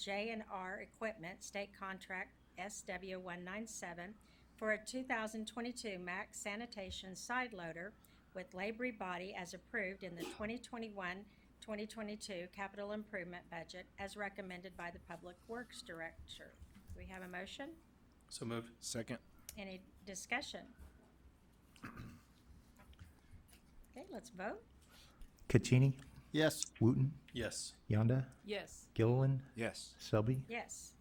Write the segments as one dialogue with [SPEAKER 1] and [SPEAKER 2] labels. [SPEAKER 1] J and R Equipment State Contract SW one nine seven for a two thousand twenty-two Mack Sanitation Side Loader with Labor Body as approved in the 2021-2022 Capital Improvement Budget as recommended by the Public Works Director. Do we have a motion?
[SPEAKER 2] So moved.
[SPEAKER 3] Second.
[SPEAKER 1] Any discussion? Okay, let's vote.
[SPEAKER 4] Caccini,
[SPEAKER 3] Yes.
[SPEAKER 4] Wooten,
[SPEAKER 2] Yes.
[SPEAKER 4] Yonda,
[SPEAKER 5] yes,
[SPEAKER 4] Gilliland,
[SPEAKER 3] Yes.
[SPEAKER 4] Selby,
[SPEAKER 1] Yes.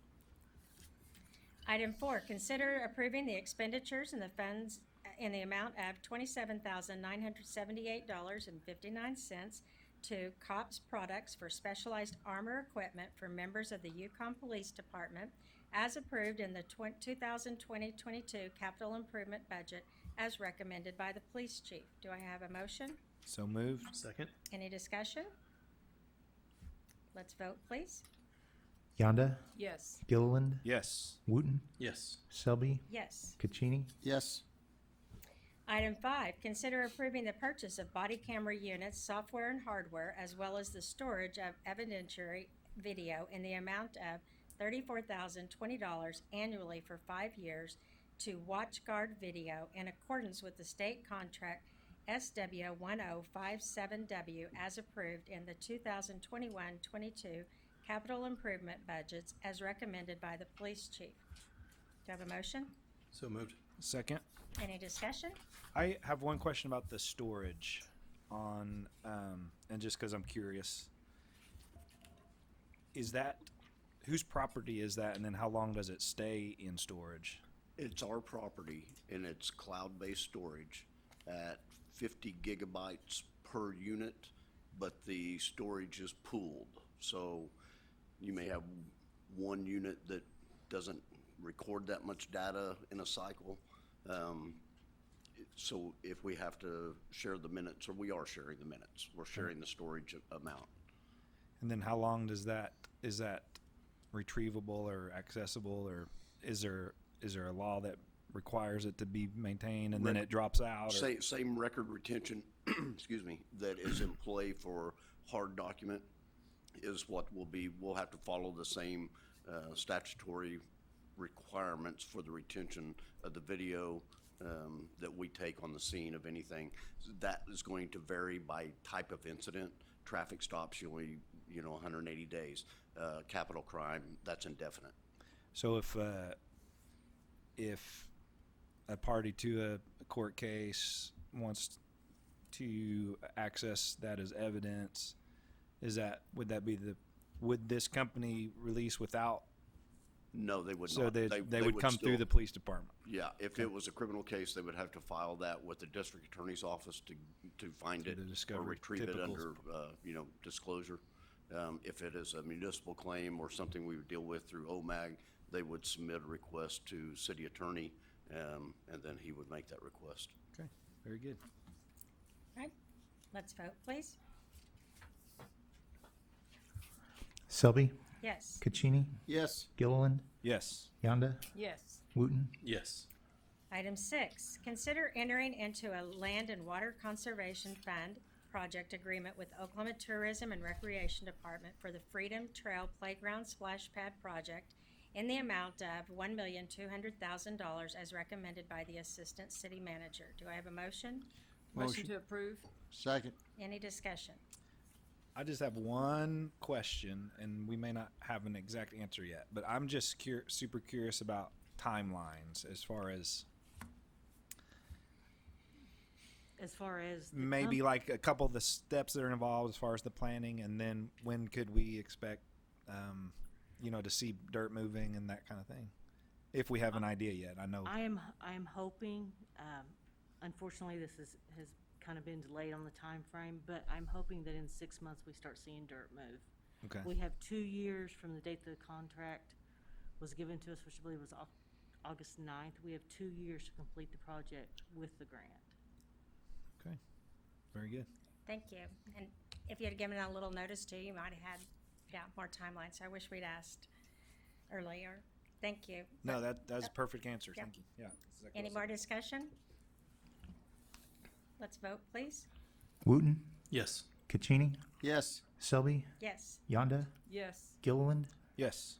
[SPEAKER 1] Item four, consider approving the expenditures and the funds in the amount of twenty-seven thousand nine hundred seventy-eight dollars and fifty-nine cents to COPS Products for specialized armor equipment for members of the Yukon Police Department as approved in the twen- 2020-22 capital improvement budget as recommended by the police chief. Do I have a motion?
[SPEAKER 3] So moved.
[SPEAKER 2] Second.
[SPEAKER 1] Any discussion? Let's vote, please.
[SPEAKER 4] Yonda,
[SPEAKER 5] yes,
[SPEAKER 4] Gilliland,
[SPEAKER 3] Yes.
[SPEAKER 4] Wooten,
[SPEAKER 2] Yes.
[SPEAKER 4] Selby,
[SPEAKER 1] Yes.
[SPEAKER 4] Caccini,
[SPEAKER 3] Yes.
[SPEAKER 1] Item five, consider approving the purchase of body camera units, software and hardware, as well as the storage of evidentiary video in the amount of thirty-four thousand twenty dollars annually for five years to WatchGuard Video in accordance with the state contract SW one oh five seven W as approved in the 2021-22 capital improvement budgets as recommended by the police chief. Do you have a motion?
[SPEAKER 2] So moved.
[SPEAKER 3] Second.
[SPEAKER 1] Any discussion?
[SPEAKER 3] I have one question about the storage on, um, and just because I'm curious. Is that, whose property is that and then how long does it stay in storage?
[SPEAKER 6] It's our property and it's cloud-based storage at fifty gigabytes per unit, but the storage is pooled. So you may have one unit that doesn't record that much data in a cycle. Um, it- So if we have to share the minutes, or we are sharing the minutes, we're sharing the storage a- amount.
[SPEAKER 3] And then how long does that, is that retrievable or accessible or is there, is there a law that requires it to be maintained and then
[SPEAKER 6] Right.
[SPEAKER 3] it drops out? or-
[SPEAKER 6] Same, same record retention, excuse me, that is in play for hard document is what will be, we'll have to follow the same uh, statutory requirements for the retention of the video um, that we take on the scene of anything. That is going to vary by type of incident. Traffic stops, you only, you know, 180 days. Uh, Capital crime, that's indefinite.
[SPEAKER 3] So if uh, if a party to a court case wants to access that as evidence, is that would that be the would this company release without
[SPEAKER 6] No, they would not.
[SPEAKER 3] so they, they, would, come
[SPEAKER 6] still-
[SPEAKER 3] through the police department?
[SPEAKER 6] Yeah, if it was a criminal case, they would have to file that with the district attorney's office to, to find
[SPEAKER 3] To
[SPEAKER 6] it
[SPEAKER 3] the
[SPEAKER 6] or
[SPEAKER 3] discovery,
[SPEAKER 6] retrieve it
[SPEAKER 3] typical.
[SPEAKER 6] under, uh, you know, disclosure. Um, if it is a municipal claim or something we would deal with through OMAG, they would submit a request to city attorney, um, and then he would make that request.
[SPEAKER 3] Okay, very good.
[SPEAKER 1] Right, let's vote, please.
[SPEAKER 4] Selby,
[SPEAKER 1] Yes.
[SPEAKER 4] Caccini,
[SPEAKER 6] Yes.
[SPEAKER 4] Gilliland,
[SPEAKER 3] Yes.
[SPEAKER 4] Yonda,
[SPEAKER 5] yes,
[SPEAKER 4] Wooten,
[SPEAKER 2] Yes.
[SPEAKER 1] Item six, consider entering into a land and water conservation fund project agreement with Oklahoma Tourism and Recreation Department for the Freedom Trail Playground Splash Pad Project in the amount of one million two hundred thousand dollars as recommended by the Assistant City Manager. Do I have a motion?
[SPEAKER 5] motion to approve,
[SPEAKER 7] Second.
[SPEAKER 1] Any discussion?
[SPEAKER 3] I just have one question, and we may not have an exact answer yet, but I'm just cur- super curious about timelines as far as
[SPEAKER 8] as far as the
[SPEAKER 3] maybe
[SPEAKER 8] com-
[SPEAKER 3] like a couple of the steps that are involved as far as the planning and then when could we expect um, you know to see dirt moving and that kind of thing if we have
[SPEAKER 1] Uh,
[SPEAKER 3] an idea yet i know
[SPEAKER 8] I am I am hoping. Um, unfortunately, this is has kind of been delayed on the time frame, but I'm hoping that in six months we start seeing dirt move.
[SPEAKER 3] okay
[SPEAKER 8] We have two years from the date the contract was given to us, which I believe was Au- August 9th. We have two years to complete the project with the grant.
[SPEAKER 3] okay very good
[SPEAKER 1] Thank you. And if you had given a little notice too, you might have had, yeah, more timeline, so I wish we'd asked earlier. Thank you.
[SPEAKER 3] no that that's a perfect answer
[SPEAKER 1] Yeah.
[SPEAKER 3] thank you yeah exactly
[SPEAKER 1] Any
[SPEAKER 3] what I
[SPEAKER 1] more discussion? Let's vote, please.
[SPEAKER 4] Wooten,
[SPEAKER 2] Yes.
[SPEAKER 4] Caccini,
[SPEAKER 7] Yes.
[SPEAKER 4] Selby,
[SPEAKER 1] Yes.
[SPEAKER 4] Yonda,
[SPEAKER 5] yes,
[SPEAKER 4] Gilliland,
[SPEAKER 3] said. Yes.